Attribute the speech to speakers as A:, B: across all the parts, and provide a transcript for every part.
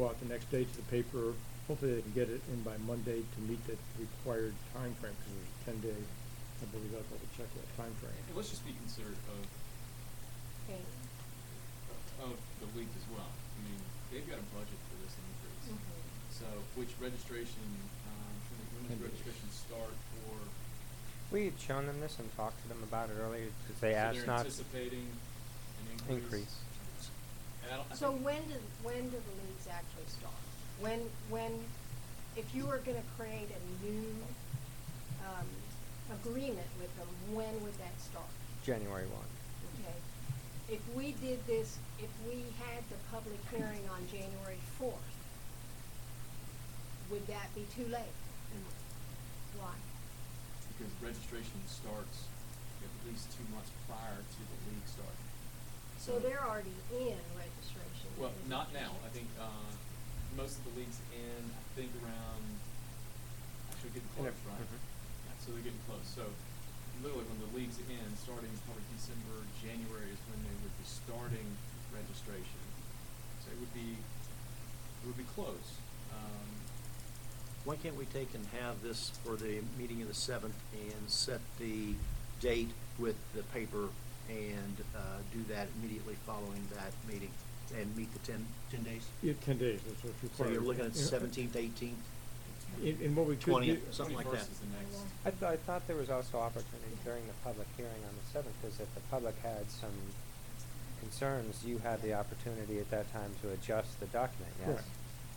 A: go out the next day to the paper. Hopefully they can get it in by Monday to meet the required time frame because there's a ten day, I believe, I'll double check that time frame.
B: And let's just be considerate of,
C: Okay.
B: of the league as well. I mean, they've got a budget for this increase.
C: Mhm.
B: So, which registration, um, should we- when does
A: Ten days.
B: registration start for?
D: We had shown them this and talked to them about it earlier because
B: so
D: they asked
B: They're
D: not.
B: anticipating an increase?
D: Increase.
B: And I don't- I
C: So
B: think-
C: when do, when do the leagues actually start? When, when, if you were gonna create a new, um, agreement with them, when would that start?
D: January one.
C: Okay. If we did this, if we had the public hearing on January fourth, would that be too late? Why?
B: Because registration starts at least two months prior to the league starting.
C: So they're already in registration.
B: Well, not now. I think uh, most of the leagues in, I think around, actually getting
D: In a-
B: close, right?
D: mhm.
B: Yeah, so they're getting close. So literally when the leagues in, starting probably December, January is when they would be starting registration. So it would be, it would be close. Um,
E: Why can't we take and have this for the meeting of the seventh and set the date with the paper and uh, do that immediately following that meeting and meet the ten, ten days?
A: Yeah, ten days, that's what's
E: So
A: required.
E: you're looking at
A: You know,
E: seventeenth, eighteenth,
A: And, and what we could do.
E: twentieth, something like that.
B: 21st is the next.
D: I, th- I thought there was also opportunity during the public hearing on the seventh because if the public had some concerns, you had the opportunity at that time to adjust the document. Yes.
A: Correct.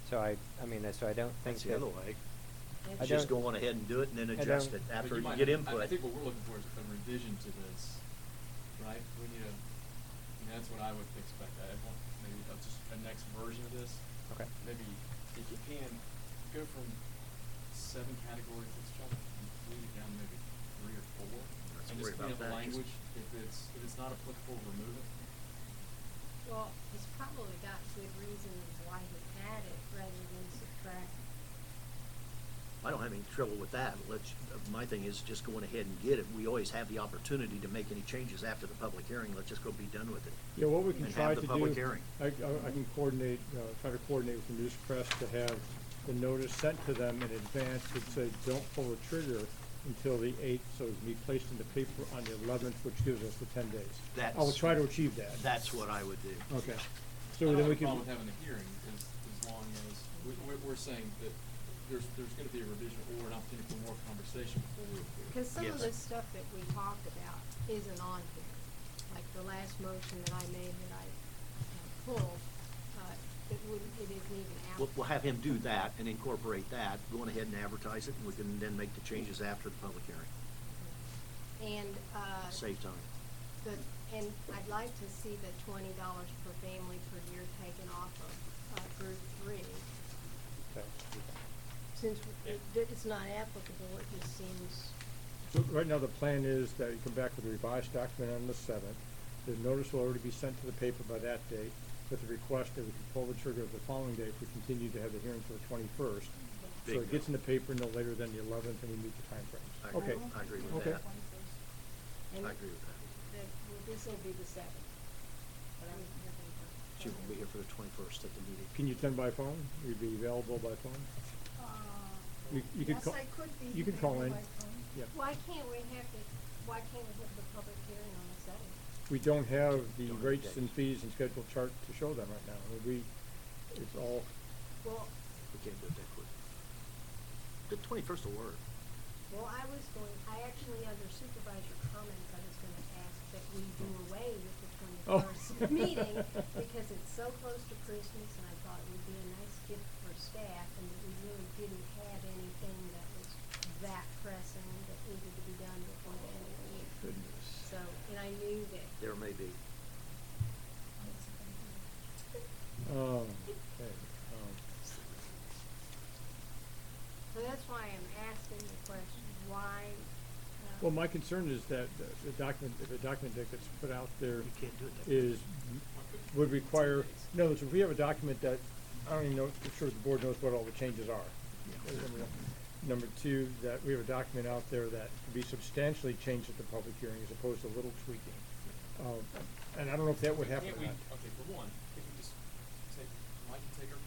D: So I, I mean, so I don't think
E: That's
D: that-
E: the other way.
D: I
E: Just
D: don't-
E: go on ahead and do it and then
D: I
E: adjust
D: don't-
E: it
B: But
E: after you
B: might
E: get
B: have- I- I
E: input.
B: think what we're looking for is a revision to this, right? We need a, and that's what I would expect. I want maybe a, just a next version of this.
D: Okay.
B: Maybe if you can, go from seven categories, let's try to complete it down to maybe three or four.
E: Let's
B: And
E: worry
B: just clean up the
E: about that.
B: language. If it's, if it's not applicable, remove it.
C: Well, he's probably got good reasons why he had it rather than subtract.
E: I don't have any trouble with that. Let's, my thing is just going ahead and get it. We always have the opportunity to make any changes after the public hearing. Let's just go be done with it.
A: Yeah, what we can
E: And
A: try
E: have
A: to
E: the
A: do.
E: public hearing.
A: I, I I can coordinate, uh, try to coordinate with the news press to have the notice sent to them in advance that says, don't pull the trigger until the eighth, so it can be placed in the paper on the eleventh, which gives us the ten days. I will
E: That's-
A: try to achieve that.
E: That's what I would do.
A: Okay.
B: I
A: So
B: don't
A: then
B: have
A: we
B: a
A: can.
B: problem with having a hearing as, as long as, we, we're, we're saying that there's, there's gonna be a revision or an opportunity for more conversation before we approve.
C: Cause some of
E: Yes.
C: the stuff that we talked about isn't on here, like the last motion that I made that I uh, pulled, uh, it wouldn't, it isn't even out.
E: We'll, we'll have him do that and incorporate that, going ahead and advertise it, and we can then make the changes after the public hearing.
C: And, uh.
E: Save time.
C: The, and I'd like to see the twenty dollars per family per year taken off of, uh, group three.
D: so, okay.
C: Since it, it's not applicable, it just seems,
A: So right now, the plan is that you come back with a revised document on the seventh. The notice will already be sent to the paper by that date with the request that we can pull the trigger of the following day if we continue to have the hearing for the twenty-first. So it
E: Bingo.
A: gets in the paper no later than the eleventh and we meet the
E: I
A: timeframes.
E: agree-
A: Okay.
E: I agree with
A: Okay.
E: that.
C: and
E: I agree with that.
C: that, well, this'll be the seventh. But I'm
E: She will be here for the twenty-first at the meeting.
A: Can you attend by phone? You'd be available by phone? You, you could
F: Yes,
A: call.
F: I could be.
A: You can call in.
F: available by phone.
A: Yeah.
C: Why can't we have the, why can't we have the public hearing on the seventh?
A: We don't have the
E: Don't have
A: rates and
E: dates.
A: fees and schedule chart to show them right now. I mean, We, it's all,
C: Well,
E: We can't do it that quick. The twenty-first will work.
C: well, I was going, I actually, under supervisor comments, I was gonna ask that we do away with the
A: Oh.
C: twenty-first meeting because it's so close to Christmas and I thought it would be a nice gift for staff and that we really didn't have anything that was that pressing that needed to be done before the end of the year. So, and I knew that.
E: There may be.
A: um, okay, um.
C: So that's why I'm asking the question, why? uh,
A: Well, my concern is that the- the document, if a document that gets put out there
E: You can't do it that
A: is, would require, no, so if we have a document that, I don't even know, I'm sure the board knows what all the changes are.
E: Yeah.
A: Number one. Number two, that we have a document out there that could be substantially changed at the public hearing as opposed to little tweaking. Um, And I don't know if that would happen
B: Can't
A: or
B: we-
A: not.
B: Okay, for one, can we just take, Mike can take our